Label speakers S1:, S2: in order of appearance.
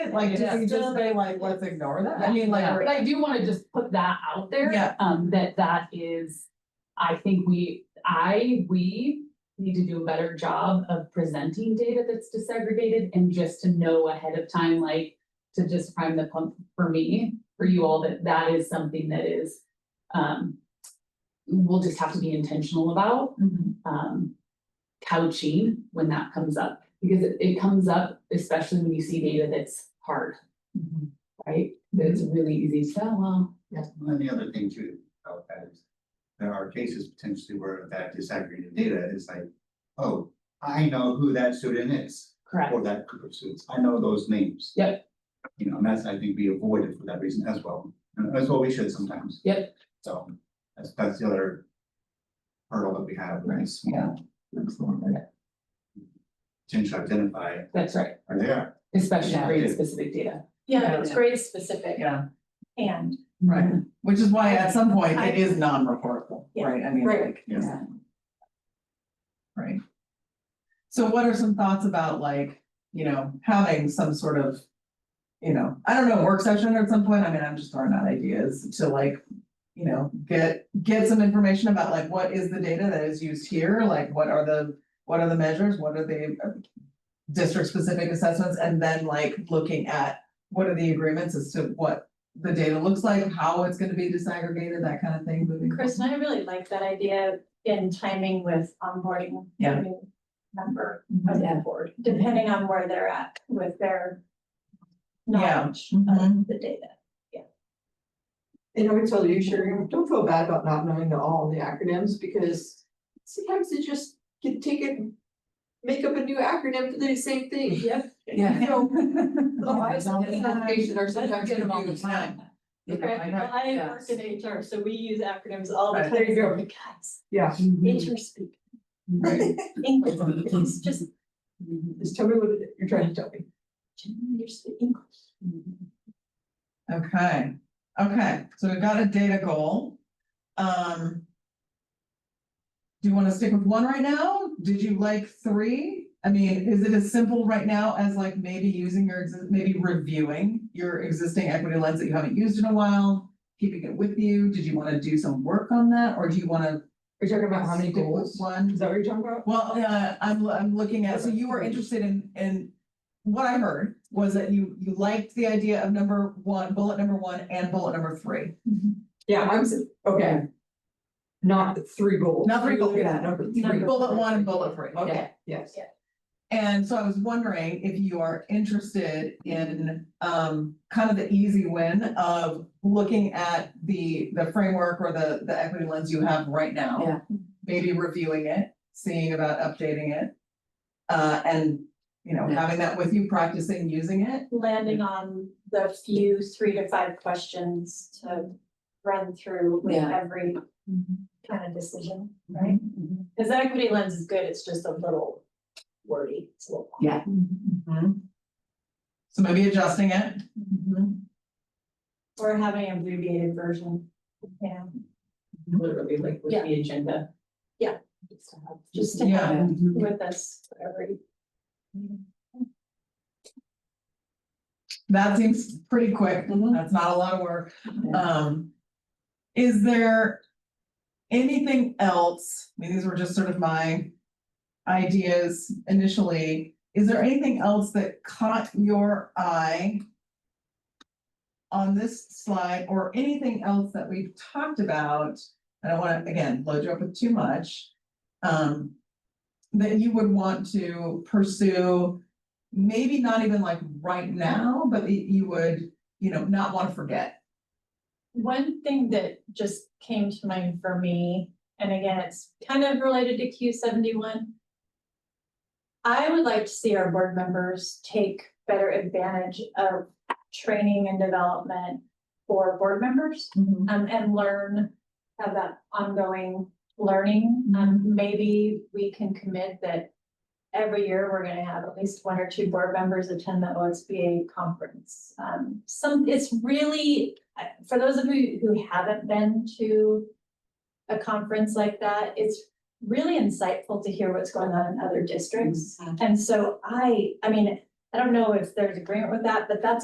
S1: it, like, do we
S2: Yeah.
S1: just say like, let's ignore that, I mean, like,
S2: Yeah.
S1: we're-
S3: But I do wanna just put that out there.
S1: Yeah.
S3: Um, that that is, I think we, I, we need to do a better job of presenting data that's disaggregated and just to know ahead of time, like, to just prime the pump for me, for you all, that that is something that is, um, we'll just have to be intentional about,
S2: Mm-hmm.
S3: um, couching when that comes up. Because it, it comes up, especially when you see data that's hard,
S2: Mm-hmm.
S3: right? That it's really easy to, say, "Oh, well,
S4: And the other thing too, about that is, there are cases potentially where that disaggregated data is like, oh, I know who that student is,
S3: Correct,
S4: or that group of students, I know those names.
S3: Yep.
S4: You know, and that's, I think, we avoid it for that reason as well, and that's what we should sometimes.
S3: Yep.
S4: So, that's, that's the other hurdle that we have, right,
S1: Yeah.
S4: small, potential identify,
S3: that's right,
S4: are there,
S3: especially
S1: Yeah.
S3: grade specific data.
S2: Yeah, it's grade specific
S1: yeah,
S2: and,
S1: right,
S3: Mm-hmm.
S1: which is why at some point it is non-reportable,
S2: Yeah.
S1: right, I mean,
S2: Right.
S1: like,
S4: yes.
S1: right? So what are some thoughts about like, you know, having some sort of, you know, I don't know, work session at some point, I mean, I'm just throwing out ideas to like, you know, get, get some information about like, what is the data that is used here, like, what are the, what are the measures, what are the district specific assessments, and then like, looking at what are the agreements as to what the data looks like, how it's gonna be disaggregated, that kind of thing moving. forward.
S2: Chris, and I really like that idea in timing with onboarding.
S1: Yeah.
S2: a new Member
S1: Mhm.
S2: of the board, depending on where they're at with their
S1: Yeah.
S2: knowledge
S1: Mhm.
S2: of the data.
S5: And I would tell you, Sherry, don't feel bad about not knowing all the acronyms because sometimes they just can take it. and Make up a new acronym for the same thing. Yep. You know, the lives of the application are sometimes confused. Okay.
S2: Well, I work in HR, so we use acronyms all the
S1: Right.
S2: time, We're like, guys,
S5: Yeah,
S3: Mm-hmm.
S2: HR speak,
S1: Right.
S2: English, it's just,
S5: just tell me what it- you're trying to tell me.
S2: you're speaking English.
S1: Okay, okay, so we've got a data goal. Um. Do you wanna stick with one right now? Did you like three? I mean, is it as simple right now as like maybe using your, exi- maybe reviewing your existing equity lens that you haven't used in a while? Keeping it with you? Did you wanna do some work on that or do you wanna?
S5: You're talking about how many
S1: stick with
S5: goals?
S1: One?
S5: Is that what you're talking about?
S1: Well, uh, I'm, I'm looking at, so you were interested in, in, what I heard was that you, you liked the idea of number one, bullet number one and bullet number three.
S5: Yeah, I'm, s- okay. Not the three goals.
S1: Not three
S5: We're looking
S1: goals.
S5: at number three.
S2: Number-
S1: Bullet one and bullet three.
S5: Okay, yes.
S1: And so I was wondering if you are interested in, um, kind of the easy win of looking at the, the framework or the, the equity lens you have right now.
S2: Yeah.
S1: Maybe reviewing it, seeing about updating it. Uh, and, you know, having that with you, practicing using it.
S2: landing on the few three to five questions to run through with
S6: Yeah.
S2: every kind of decision, right?
S3: Mm-hmm.
S2: Because the equity lens is good, it's just a little wordy, it's a little.
S3: Mm-hmm.
S1: So maybe adjusting it.
S3: Mm-hmm.
S2: Or having an abbreviated version, yeah,
S3: Literally like with
S2: Yeah.
S3: the agenda.
S2: Yeah.
S3: Just to have-
S2: just to
S1: Yeah.
S2: have it
S3: Mhm.
S2: with us for every.
S1: That seems pretty quick.
S6: Mhm.
S1: That's not a lot of work. Um. Is there anything else? I mean, these were just sort of my ideas initially. Is there anything else that caught your eye? On this slide or anything else that we've talked about? I don't wanna, again, load you up with too much. Um. That you would want to pursue maybe not even like right now, but that you would, you know, not want to forget.
S2: One thing that just came to mind for me, and again, it's kind of related to Q seventy-one. I would like to see our board members take better advantage of training and development for board members. um, and learn, have that ongoing learning. Um, maybe we can commit that every year we're gonna have at least one or two board members attend the OSBA conference. Um, some, it's really, uh, for those of you who haven't been to a conference like that, it's really insightful to hear what's going on in other districts. And so I, I mean, I don't know if there's agreement with that, but that's